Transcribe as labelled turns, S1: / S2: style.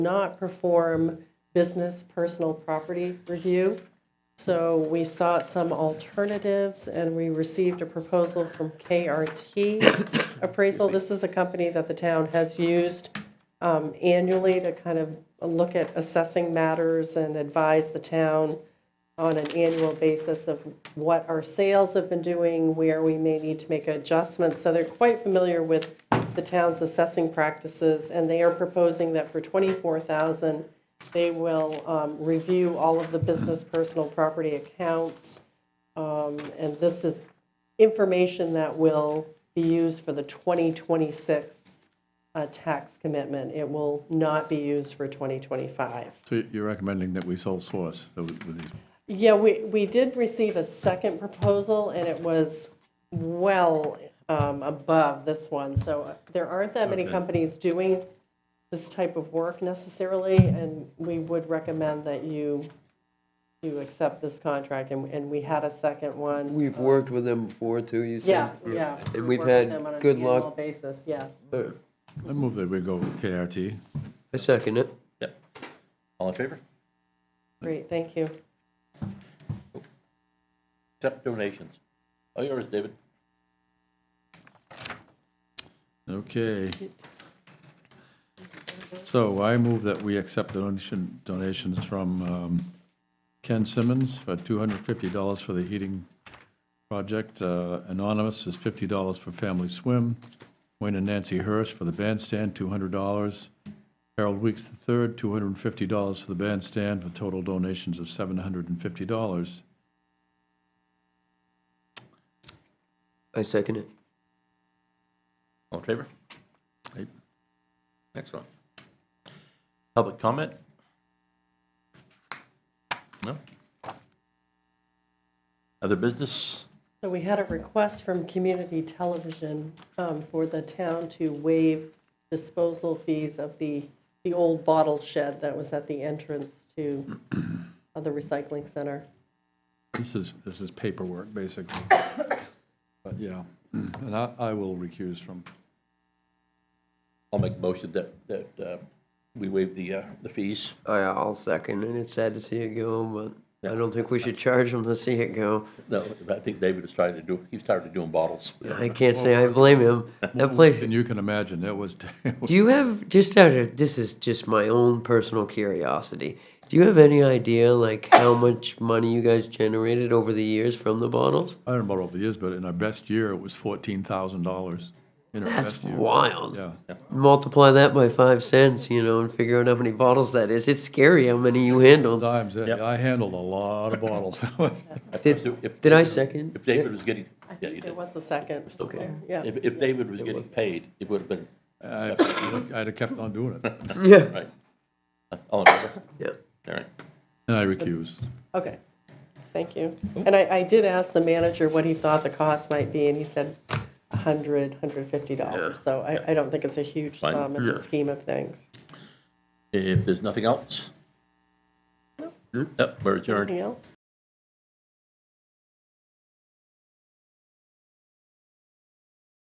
S1: not perform business personal property review. So we sought some alternatives, and we received a proposal from KRT Appraisal. This is a company that the town has used um, annually to kind of look at assessing matters and advise the town on an annual basis of what our sales have been doing, where we may need to make adjustments. So they're quite familiar with the town's assessing practices, and they are proposing that for 24,000, they will um, review all of the business personal property accounts. Um, And this is information that will be used for the 2026 uh, tax commitment. It will not be used for 2025.
S2: So you're recommending that we sole source the- with these?
S1: Yeah, we, we did receive a second proposal, and it was well um, above this one. So uh, there aren't that many
S2: Okay.
S1: companies doing this type of work necessarily, and we would recommend that you, you accept this contract. And, and we had a second one.
S3: We've worked with them before too, you
S1: Yeah,
S3: said?
S1: yeah.
S3: And
S1: we
S3: we've
S1: work with
S3: had
S1: them on an
S3: good
S1: annual
S3: luck.
S1: Basis, yes.
S3: Uh,
S2: I move that we go with KRT.
S3: I second it.
S4: Yep. All in favor?
S1: Great, thank you.
S4: Accept donations. All yours, David.
S2: Okay. So I move that we accept donation, donations from um, Ken Simmons for $250 for the heating project. Uh, Anonymous is $50 for Family Swim. Wayne and Nancy Hirsch for the bandstand, $200. Harold Weeks III, $250 for the bandstand, with total donations of $750.
S3: I second it.
S4: All in favor?
S2: Aye.
S4: Excellent. Public comment? No? Other business?
S1: So we had a request from community television um, for the town to waive disposal fees of the, the old bottle shed that was at the entrance to uh, the recycling center.
S2: This is, this is paperwork, basically. But yeah,
S3: Hmm.
S2: and I, I will recuse from,
S4: I'll make a motion that, that uh, we waive the, uh, the fees.
S3: I, I'll second it. It's sad to see it go, but I don't think we should charge them to see it go.
S4: No, I think David is trying to do, he's tired of doing bottles.
S3: I can't say I blame him. That place.
S2: and you can imagine, it was,
S3: Do you have just out of this is just my own personal curiosity. Do you have any idea like how much money you guys generated over the years from the bottles?
S2: I don't know about over the years, but in our best year, it was fourteen thousand dollars.
S3: That's wild.
S2: Yeah,
S3: Multiply that by five cents, you know, and figure out how many bottles that is. It's scary how many you handled.
S2: times,
S4: Yep.
S2: I handled a lot of bottles.
S3: Did, did I second?
S4: If David was getting,
S1: I
S4: yeah, you
S1: think there
S4: did.
S1: was a second.
S3: Okay.
S1: Yeah.
S4: If, if David was getting paid, it would have been,
S2: I- I'd have kept on doing it,
S3: Yeah.
S4: right. All in favor?
S3: Yeah.
S4: All right.
S2: and I recused.
S1: Okay, thank you.
S4: Oh.
S1: And I, I did ask the manager what he thought the cost might be, and he said 100, 150 dollars. So I, I don't think it's a huge
S4: Fine.
S1: sum in the scheme of things.
S4: If there's nothing else? Hmm, Nope, we're adjourned.
S1: Anything else?